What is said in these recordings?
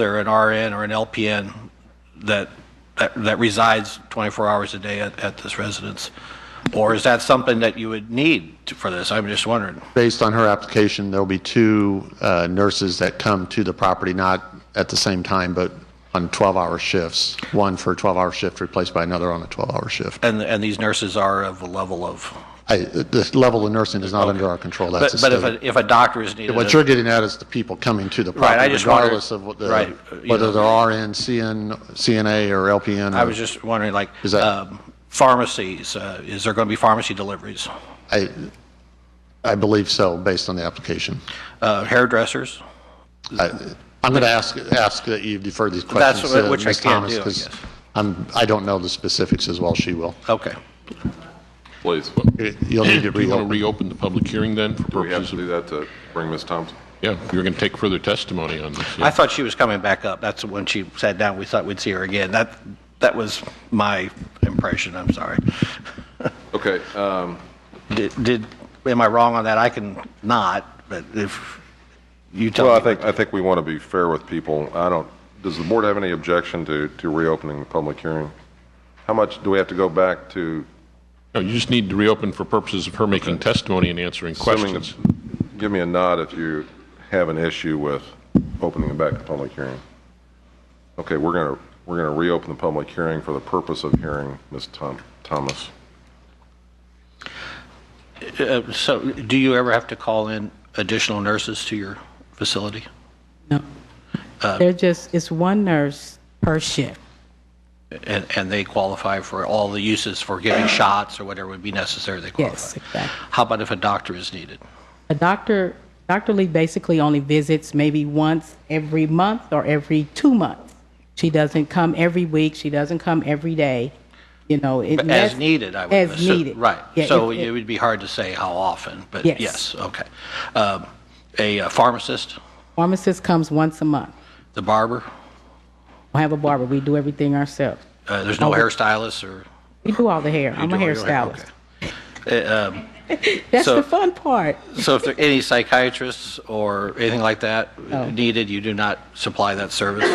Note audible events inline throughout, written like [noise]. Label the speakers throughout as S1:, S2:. S1: or an RN or an LPN that, that that resides 24 hours a day at, at this residence? Or is that something that you would need to- for this? I'm just wondering.
S2: Based on her application, there'll be two uh, nurses that come to the property, not at the same time, but on 12-hour shifts, one for a 12-hour shift replaced by another on a 12-hour shift.
S1: And, and these nurses are of a level of,
S2: I- The level of nursing is not under our control,
S1: but,
S2: that's a
S1: but if,
S2: state.
S1: a- if a doctor is needed.
S2: What you're getting at is the people coming to the
S1: Right, I
S2: property,
S1: just wondered-
S2: regardless of what the-
S1: right, uh, you know.
S2: whether they're RN, CN, CNA, or LPN.
S1: I
S2: or-
S1: was just wondering, like,
S2: Is that-
S1: um, pharmacies, uh, is there going to be pharmacy deliveries?
S2: I- I believe so, based on the application.
S1: Uh, Hairdressers?
S2: I- I'm going to ask, ask that you defer these
S1: That's
S2: questions
S1: what-
S2: to
S1: which I
S2: Ms.
S1: can't
S2: Thomas,
S1: do, I
S2: because
S1: guess.
S2: I'm, I don't know the specifics as well, she will.
S1: Okay.
S3: Please.
S2: You'll need to
S4: Do you want
S2: reopen.
S4: to reopen the public hearing then for
S3: Do we have
S4: purposes
S3: to do
S4: of?
S3: that to bring Ms. Thompson?
S4: Yeah, you're going to take further testimony on this. yeah.
S1: I thought she was coming back up. That's when she sat down, we thought we'd see her again. That, that was my impression, I'm sorry.
S3: Okay, um,
S1: Did, did, am I wrong on that? I can not, but if you tell me.
S3: well, I
S1: what-
S3: think, I think we want to be fair with people. I don't, does the board have any objection to, to reopening the public hearing? How much, do we have to go back to,
S4: No, you just need to reopen for purposes of her making testimony and answering
S3: assuming,
S4: questions.
S3: that- give me a nod if you have an issue with opening it back to public hearing. Okay, we're going to, we're going to reopen the public hearing for the purpose of hearing Ms. Thom- Thomas.
S1: Uh, So do you ever have to call in additional nurses to your facility?
S5: No.
S1: Uh,
S5: They're just, it's one nurse per shift.
S1: And, and they qualify for all the uses for
S5: [clears throat]
S1: giving shots or whatever would be necessary, they qualify?
S5: Yes, exactly.
S1: How about if a doctor is needed?
S5: A doctor, Dr. Lee basically only visits maybe once every month or every two months. She doesn't come every week, she doesn't come every day, you know. it-
S1: As needed, I would
S5: As
S1: assume.
S5: needed.
S1: Right.
S5: Yeah,
S1: So
S5: if-
S1: it would be hard to say how often, but
S5: Yes.
S1: yes, okay. Um, A uh, pharmacist,
S5: Pharmacist comes once a month.
S1: the barber,
S5: We have a barber, we do everything ourselves.
S1: Uh, there's no hairstylist or?
S5: We do all the hair, Oh, I'm a
S1: You do all your hair,
S5: hairstylist.
S1: okay. Uh, um,
S5: That's
S1: So-
S5: the fun part.
S1: So if there are any psychiatrists or anything like that
S5: Oh.
S1: needed, you do not supply that service?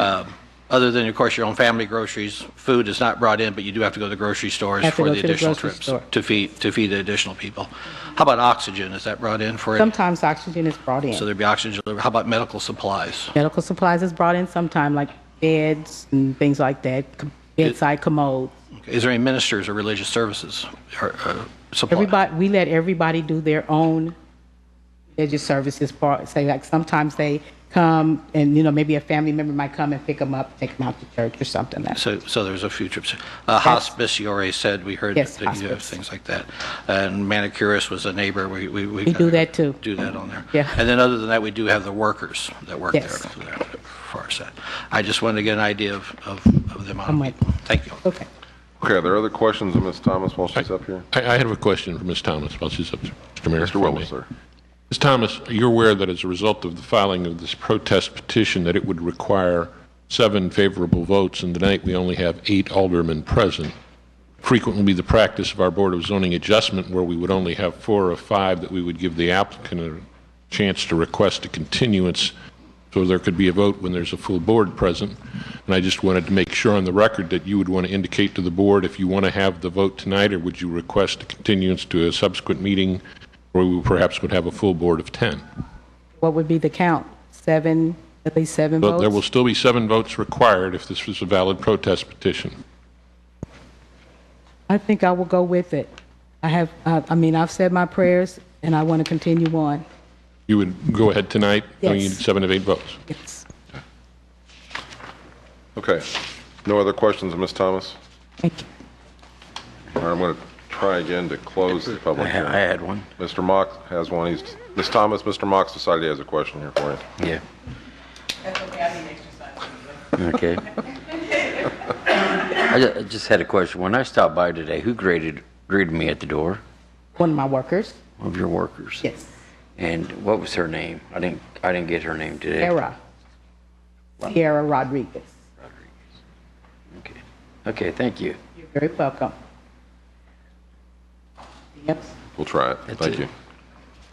S1: Um, Other than, of course, your own family groceries, food is not brought in, but you do have to go to the grocery stores
S5: Have to
S1: for
S5: go
S1: the
S5: to the
S1: additional
S5: grocery
S1: trips
S5: store.
S1: to feed, to feed the additional people. How about oxygen? Is that brought in for, it?
S5: Sometimes oxygen is brought
S1: so
S5: in.
S1: there'd be oxygen delivery? How about medical supplies?
S5: Medical supplies is brought in sometime, like beds and things like that, com- bedside commodes.
S1: Is there any ministers or religious services or uh, supply?
S5: Everybody, we let everybody do their own religious services part. Say like sometimes they come and you know maybe a family member might come and pick them up, take them out to church or something. Like
S1: So, so there's a few trips. Uh, Hospice, you already said, we heard
S5: Yes,
S1: that you have
S5: hospice.
S1: things like that. And manicurist was a neighbor, we, we. We
S5: do that too.
S1: Do that on there.
S5: Yeah.
S1: And then other than that, we do have the workers that work there.
S5: Yes.
S1: so that- as Far as that. I just wanted to get an idea of, of of the amount.
S5: I'm
S1: of
S5: with
S1: people. Thank you.
S5: okay.
S3: Okay, are there other questions of Ms. Thomas while she's up here?
S4: I, I have a question for Ms. Thomas while she's up, there, Mr. Mayor. if I
S3: Mr.
S4: may.
S3: Willis, sir.
S4: Ms. Thomas, you're aware that as a result of the filing of this protest petition, that it would require seven favorable votes, and tonight we only have eight aldermen present. Frequently be the practice of our Board of Zoning Adjustment, where we would only have four or five, that we would give the applicant a chance to request a continuance, so there could be a vote when there's a full board present. And I just wanted to make sure on the record that you would want to indicate to the board if you want to have the vote tonight, or would you request a continuance to a subsequent meeting where we perhaps would have a full board of 10.
S5: What would be the count? Seven, at least seven
S4: But there will
S5: votes.
S4: still be seven votes required if this was a valid protest petition.
S5: I think I will go with it. I have. Uh, I mean, I've said my prayers and I want to continue on.
S4: You would go ahead tonight, knowing you
S5: Yes.
S4: need seven of eight votes.
S5: Yes.
S3: Okay. No other questions of Ms. Thomas?
S5: Thank you.
S3: All right, I'm going to try again to close the public hearing.
S1: one.
S3: Mr. Mock has one. He's, Ms. Thomas, Mr. Mock's decided he has a question here for you.
S6: Yeah. Okay. I ju- I just had a question. When I stopped by today, who graded, greeted me at the door?
S5: One of my workers.
S6: One of your workers?
S5: Yes.
S6: And what was her name? I didn't, I didn't get her name today.
S5: Era. Sierra Rodriguez.
S6: Okay. Okay, thank you.
S5: You're very welcome. Yes.
S3: We'll try it.
S6: That's
S3: Thank
S6: it.
S3: you.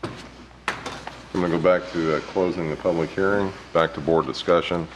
S3: I'm going to go back to uh, closing the public hearing, back to board discussion.